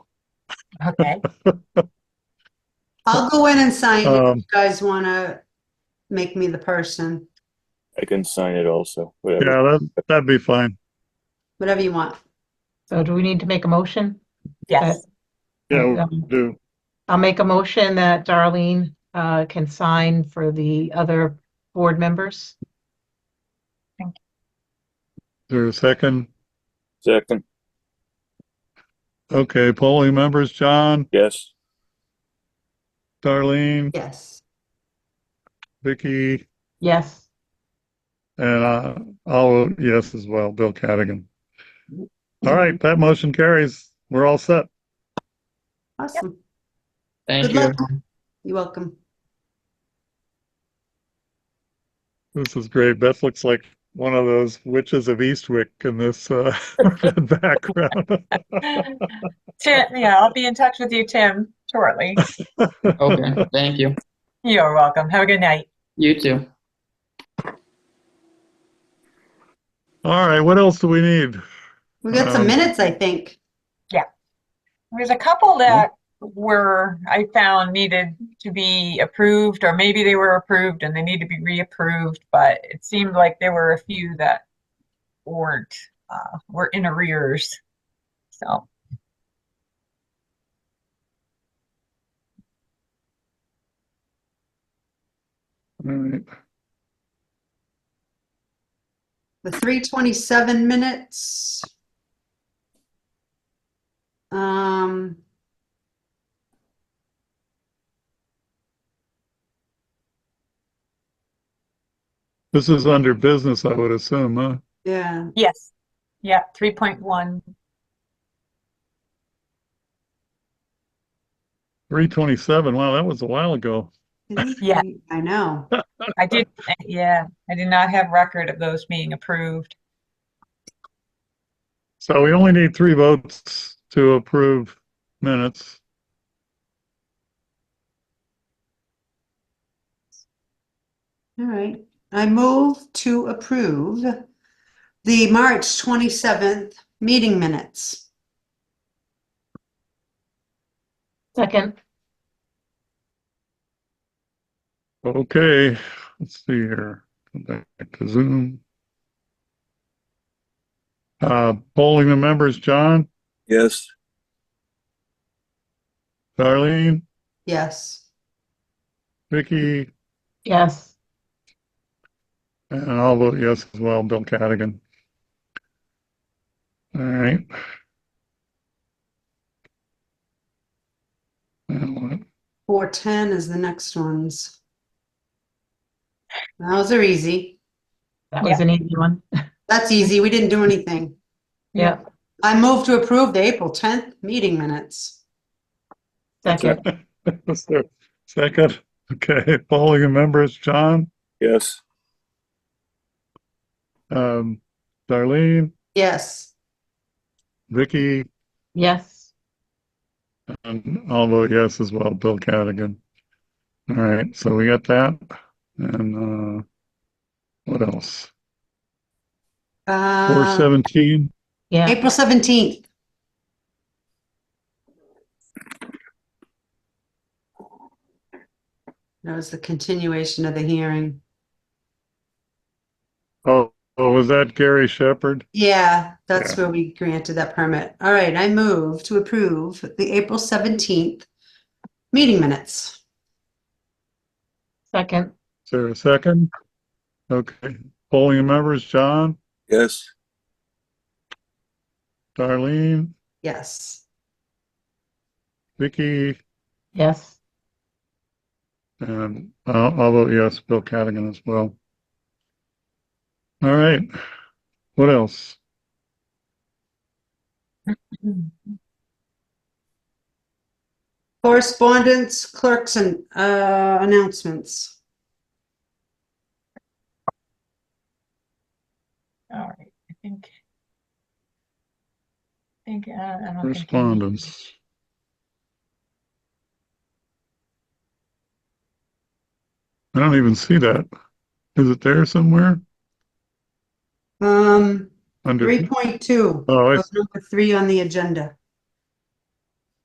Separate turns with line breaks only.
Okay. I'll go in and sign if
Um,
you guys want to make me the person,
I can sign it also, whatever.
yeah, that, that'd be fine.
whatever you want.
So do we need to make a motion?
Yes,
Yeah, we
Um,
do.
I'll make a motion that Darlene uh, can sign for the other board members.
There's a second.
Second,
Okay, polling members, John,
yes,
Darlene,
Yes.
Vicky,
Yes,
and uh, I'll vote yes as well, Bill Cadigan. All right, that motion carries. We're all set.
Awesome.
Thank
Good
you.
luck. You're welcome.
This is great. Beth looks like one of those witches of Eastwick in this uh, background.
Tim, yeah, I'll be in touch with you, Tim, shortly.
Okay, thank you.
You're welcome. Have a good night.
You too.
All right, what else do we need?
We got some
Um,
minutes, I think.
There's a couple that were, I found needed to be approved, or maybe they were approved and they need to be reapproved, but it seemed like there were a few that weren't, uh, were in arrears. So,
All
Mm.
right.
The 327 minutes. Um.
This is under business, I would assume, huh?
Yeah,
yes, yeah, three point one.
327. Wow, that was a while ago.
Yeah.
I know.
I did, yeah, I did not have record of those being approved.
So we only need three votes to approve minutes.
All right. I move to approve the March 27th meeting minutes.
second,
Okay, let's see here. Go back to Zoom. Uh, polling the members, John,
yes,
Darlene,
Yes.
Vicky,
yes,
and I'll vote yes as well, Bill Cadigan. All right. Now what?
410 is the next ones. Those are easy.
that was an easy one.
That's easy. We didn't do anything.
Yeah,
I move to approve the April 10th meeting minutes.
second,
Was there a Second, okay, polling the members, John,
yes,
um, Darlene,
Yes.
Vicky,
yes,
And Um, I'll vote yes as well, Bill Cadigan. All right, so we got that, and, uh, what else? Four
Uh,
seventeen,
yeah,
April 17th. That was the continuation of the hearing.
oh, oh, was that Gary Shepherd?
Yeah, that's where we granted that permit. All right, I move to approve the April 17th meeting minutes.
second,
Is there a second? Okay, polling members, John,
yes,
Darlene,
Yes.
Vicky,
yes,
and I'll, I'll vote yes, Bill Cadigan as well. All right, what else?
Correspondence, clerks and uh, announcements.
All right, I think. I think, uh, I don't think. I need-
Correspondence. I don't even see that. Is it there somewhere?
Um,
Under,
3.2, Um,
oh, I, Uh, Oh,
was number three on the agenda.